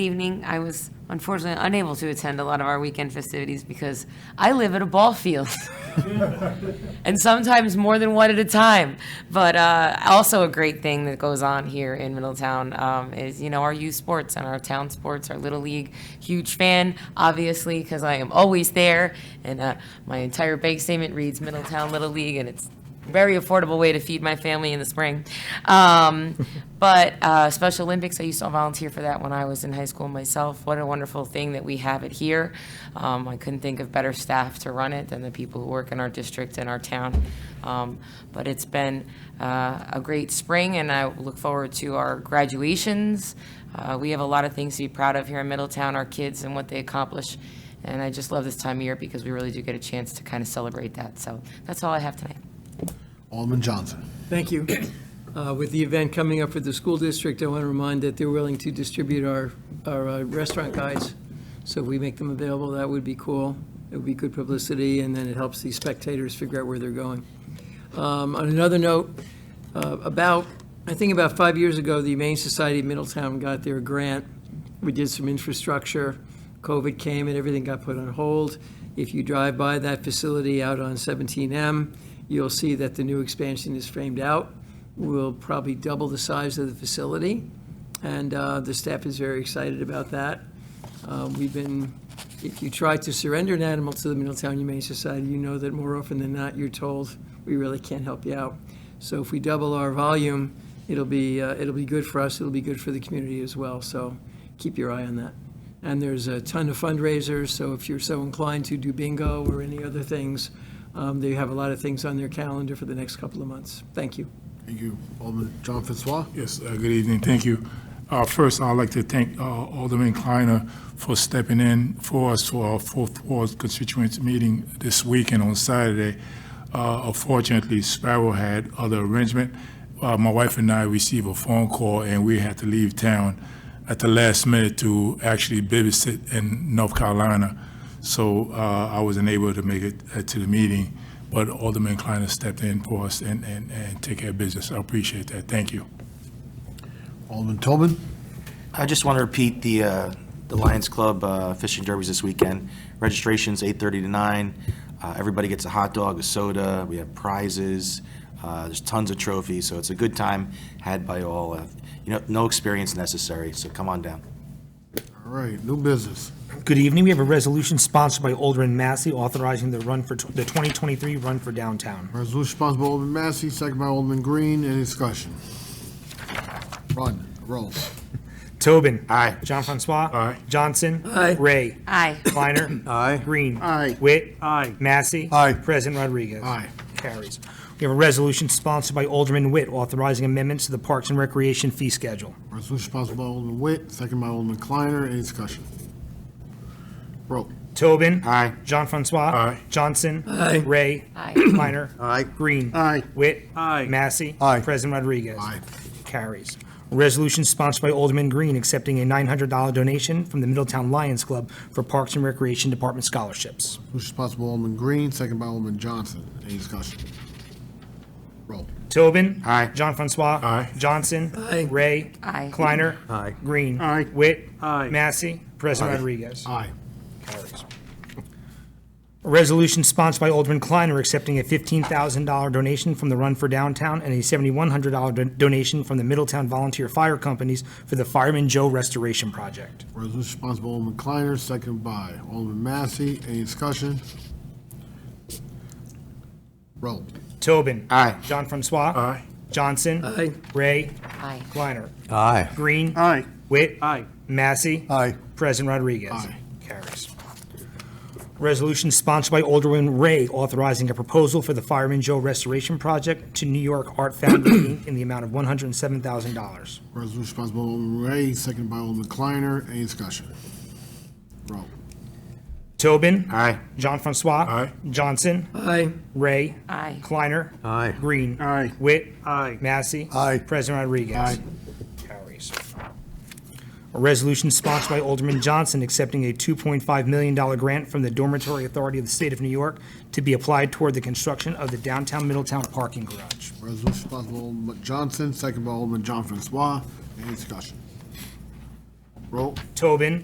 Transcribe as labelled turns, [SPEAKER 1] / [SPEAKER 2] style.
[SPEAKER 1] evening. I was unfortunately unable to attend a lot of our weekend festivities because I live at a ball field. and sometimes more than one at a time. But uh, also a great thing that goes on here in Middletown um, is you know our youth sports and our town sports, our little league. Huge fan, obviously, because I am always there, and uh, my entire bank statement reads Middletown Little League, and it's a very affordable way to feed my family in the spring. Um, but uh, Special Olympics, I used to volunteer for that when I was in high school myself. What a wonderful thing that we have it here. Um, I couldn't think of better staff to run it than the people who work in our district and our town. Um, but it's been uh, a great spring, and I look forward to our graduations. Uh, we have a lot of things to be proud of here in Middletown, our kids and what they accomplish. And I just love this time of year because we really do get a chance to kind of celebrate that. So that's all I have tonight.
[SPEAKER 2] Alderman Johnson.
[SPEAKER 3] Thank you. Uh, With the event coming up for the school district, I want to remind that they're willing to distribute our, our uh, restaurant guides. So if we make them available, that would be cool. It would be good publicity, and then it helps the spectators figure out where they're going. Um, On another note, uh, about, I think about five years ago, the Humane Society of Middletown got their grant. We did some infrastructure. COVID came and everything got put on hold. If you drive by that facility out on 17M, you'll see that the new expansion is framed out. We'll probably double the size of the facility, and uh, the staff is very excited about that. Uh, We've been, if you try to surrender an animal to the Middletown Humane Society, you know that more often than not, you're told, we really can't help you out. So if we double our volume, it'll be, uh, it'll be good for us, it'll be good for the community as well, so keep your eye on that. And there's a ton of fundraisers, so if you're so inclined to do bingo or any other things, um, they have a lot of things on their calendar for the next couple of months. Thank you.
[SPEAKER 2] Thank you. Alderman John Francois.
[SPEAKER 4] Yes, uh, good evening, thank you. Uh, First, I'd like to thank uh, Alderman Kleiner for stepping in for us for our Fourth Ward constituents meeting this weekend on Saturday. Uh, Unfortunately, Sparrow had other arrangement. Uh, My wife and I received a phone call, and we had to leave town at the last minute to actually babysit in North Carolina. So uh, I wasn't able to make it uh, to the meeting, but Alderman Kleiner stepped in for us and and and take care of business. I appreciate that, thank you.
[SPEAKER 2] Alderman Tobin.
[SPEAKER 5] I just want to repeat the, uh, the Lions Club uh, Fishing Derbies this weekend. Registration's 8:30 to 9. Uh, Everybody gets a hot dog, a soda, we have prizes, Uh, there's tons of trophies, so it's a good time had by all. Uh, You know, no experience necessary, so come on down.
[SPEAKER 2] All right, new business.
[SPEAKER 6] Good evening. We have a resolution sponsored by Alderman Massey authorizing the run for, tw- the 2023 Run for Downtown.
[SPEAKER 2] Resolution sponsored by Alderman Massey, second by Alderman Green. Any discussion? Run, roll.
[SPEAKER 6] Tobin.
[SPEAKER 5] Aye.
[SPEAKER 6] John Francois.
[SPEAKER 4] Aye.
[SPEAKER 6] Johnson.
[SPEAKER 3] Aye.
[SPEAKER 6] Ray.
[SPEAKER 1] Aye.
[SPEAKER 6] Kleiner.
[SPEAKER 3] Aye.
[SPEAKER 6] Green.
[SPEAKER 2] Aye.
[SPEAKER 6] Witt.
[SPEAKER 3] Aye.
[SPEAKER 6] Massey.
[SPEAKER 2] Aye.
[SPEAKER 6] President Rodriguez.
[SPEAKER 2] Aye.
[SPEAKER 6] Carries. We have a resolution sponsored by Alderman Witt authorizing amendments to the Parks and Recreation fee schedule.
[SPEAKER 2] Resolution sponsored by Alderman Witt, second by Alderman Kleiner. Any discussion? Roll.
[SPEAKER 6] Tobin.
[SPEAKER 5] Aye.
[SPEAKER 6] John Francois.
[SPEAKER 4] Aye.
[SPEAKER 6] Johnson. Ray.
[SPEAKER 1] Aye.
[SPEAKER 6] Kleiner.
[SPEAKER 2] Aye.
[SPEAKER 6] Green.
[SPEAKER 2] Aye.
[SPEAKER 6] Witt.
[SPEAKER 3] Aye.
[SPEAKER 6] Massey.
[SPEAKER 2] Aye.
[SPEAKER 6] President Rodriguez.
[SPEAKER 2] Aye.
[SPEAKER 6] Carries. Resolution sponsored by Alderman Green accepting a $900 donation from the Middletown Lions Club for Parks and Recreation Department scholarships.
[SPEAKER 2] Resolution sponsored by Alderman Green, second by Alderman Johnson. Any discussion? Roll.
[SPEAKER 6] Tobin.
[SPEAKER 5] Aye.
[SPEAKER 6] John Francois.
[SPEAKER 4] Aye.
[SPEAKER 6] Johnson.
[SPEAKER 3] Aye.
[SPEAKER 6] Ray.
[SPEAKER 1] Aye.
[SPEAKER 6] Kleiner. Aye. Green.
[SPEAKER 2] Aye.
[SPEAKER 6] Witt.
[SPEAKER 3] Aye.
[SPEAKER 6] Massey. President Rodriguez.
[SPEAKER 2] Aye.
[SPEAKER 6] Carries. A resolution sponsored by Alderman Kleiner accepting a $15,000 donation from the Run for Downtown and a $7,100 do- donation from the Middletown Volunteer Fire Companies for the Fireman Joe Restoration Project.
[SPEAKER 2] Resolution sponsored by Alderman Kleiner, second by Alderman Massey. Any discussion? Roll.
[SPEAKER 6] Tobin.
[SPEAKER 5] Aye.
[SPEAKER 6] John Francois.
[SPEAKER 4] Aye.
[SPEAKER 6] Johnson.
[SPEAKER 3] Aye.
[SPEAKER 6] Ray.
[SPEAKER 1] Aye.
[SPEAKER 6] Kleiner.
[SPEAKER 5] Aye.
[SPEAKER 6] Green.
[SPEAKER 2] Aye.
[SPEAKER 6] Witt.
[SPEAKER 3] Aye.
[SPEAKER 6] Massey.
[SPEAKER 2] Aye.
[SPEAKER 6] President Rodriguez.
[SPEAKER 2] Aye.
[SPEAKER 6] Carries. Resolution sponsored by Alderman Ray authorizing a proposal for the Fireman Joe Restoration Project to New York Art Foundry Inc. in the amount of $107,000.
[SPEAKER 2] Resolution sponsored by Alderman Ray, second by Alderman Kleiner. Any discussion? Roll.
[SPEAKER 6] Tobin.
[SPEAKER 5] Aye.
[SPEAKER 6] John Francois.
[SPEAKER 4] Aye.
[SPEAKER 6] Johnson.
[SPEAKER 3] Aye.
[SPEAKER 6] Ray.
[SPEAKER 1] Aye.
[SPEAKER 6] Kleiner.
[SPEAKER 5] Aye.
[SPEAKER 6] Green.
[SPEAKER 2] Aye.
[SPEAKER 6] Witt.
[SPEAKER 3] Aye.
[SPEAKER 6] Massey.
[SPEAKER 2] Aye.
[SPEAKER 6] President Rodriguez.
[SPEAKER 2] Aye.
[SPEAKER 6] Carries. A resolution sponsored by Alderman Johnson accepting a $2.5 million grant from the Dormitory Authority of the State of New York to be applied toward the construction of the downtown Middletown parking garage.
[SPEAKER 2] Resolution sponsored by Alderman Johnson, second by Alderman John Francois. Any discussion? Roll.
[SPEAKER 6] Tobin.